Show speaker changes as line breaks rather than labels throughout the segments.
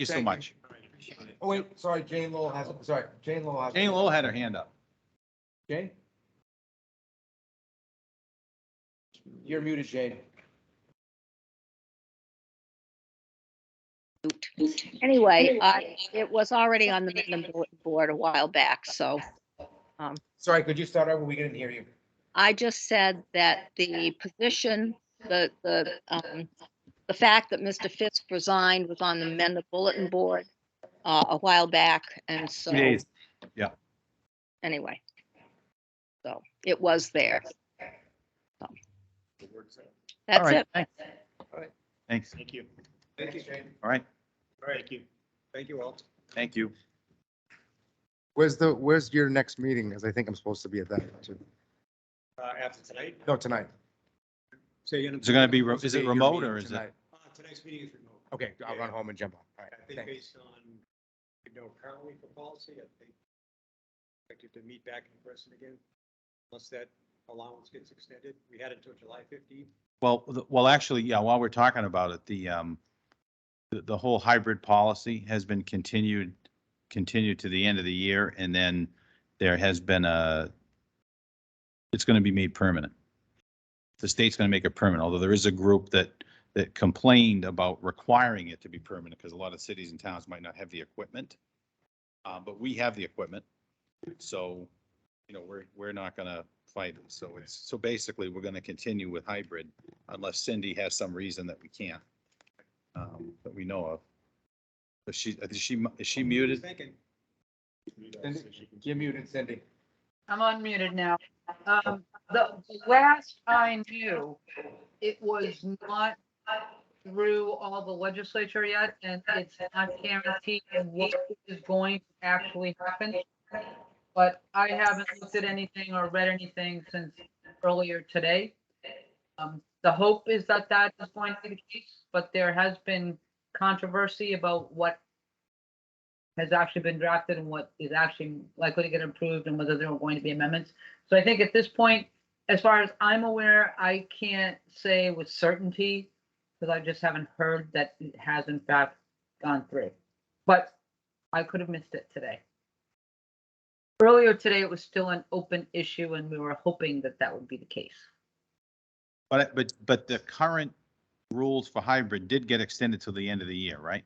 you so
Thank you.
much.
Oh, wait, sorry, Jane Lowell has, sorry, Jane Lowell has.
Jane Lowell had her hand up.
Jane? You're muted, Jane.
Anyway, I, it was already on the Midland bulletin board a while back, so
Sorry, could you start over? We didn't hear you.
I just said that the position, the, the, um, the fact that Mr. Fisk resigned was on the Mendon bulletin board, uh, a while back, and so, anyway. So it was there. So.
All
That's
right.
it.
Thanks.
All right.
Thanks.
Thank you.
Thank you, Jane.
All right.
Thank you. Thank you all.
Thank you.
Where's the, where's your next meeting? Because I think I'm supposed to be at that too.
Uh, after tonight.
No, tonight.
So you're
Is it going to be, re- is
Your
it remote or
meeting
is it?
tonight.
Uh, Tonight's meeting is remote.
Okay, I'll run home and jump on. All right,
I think
thanks.
based on, you know, currently for policy, I think expected to meet back in person again, unless that allowance gets extended. We had it until July fifteenth.
Well, the- well, actually, yeah, while we're talking about it, the, um, the, the whole hybrid policy has been continued, continued to the end of the year. And then there has been a, it's going to be made permanent. The state's going to make it permanent, although there is a group that, that complained about requiring it to be permanent because a lot of cities and towns might not have the equipment. Uh, but we have the equipment. So, you know, we're, we're not going to fight it. So it's, so basically, we're going to continue with hybrid unless Cindy has some reason that we can't, um, that we know of. But she, I think she, mu- is she muted?
Thinking.
You're muted, Cindy.
I'm unmuted now. Um, the the last I knew, it was not through all the legislature yet, and it's not guaranteed what is going to actually happen. But I haven't looked at anything or read anything since earlier today. Um, the hope is that that is going to be the case, but there has been controversy about what has actually been drafted and what is actually likely to get approved and whether there are going to be amendments. So I think at this point, as far as I'm aware, I can't say with certainty because I just haven't heard that it has in fact gone through. But I could have missed it today. Earlier today, it was still an open issue and we were hoping that that would be the case.
But, but, but the current rules for hybrid did get extended till the end of the year, right?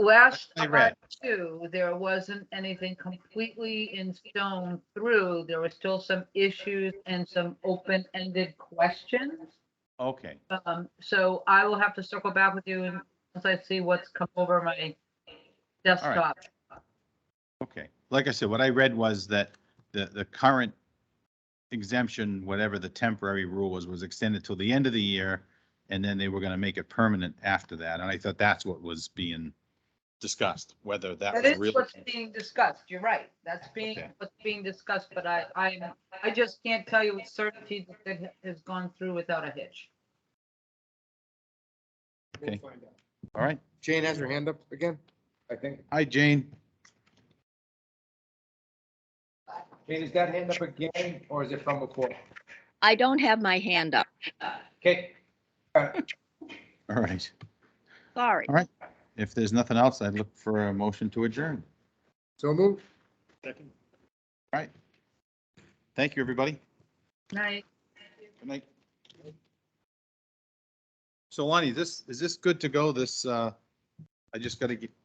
Last
I
time
read.
too, there wasn't anything completely in stone through. There were still some issues and some open-ended questions.
Okay,
Um, so I will have to circle back with you and once I see what's come over my desktop.
okay. Like I said, what I read was that the, the current exemption, whatever the temporary rule was, was extended till the end of the year. And then they were going to make it permanent after that. And I thought that's what was being discussed, whether that
That
was
is
really.
what's being discussed. You're right. That's being,
Okay.
what's being discussed, but I, I, I just can't tell you with certainty that it has gone through without a hitch.
Okay.
We'll find out.
All right.
Jane has her hand up again?
I think.
Hi, Jane.
Jane, is that hand up again or is it from before?
I don't have my hand up.
Okay.
All right.
Sorry.
All right. If there's nothing else, I'd look for a motion to adjourn.
So moved?
Second.
All right. Thank you, everybody.
Night.
Good night. So Lonnie, this, is this good to go? This, uh, I just gotta get,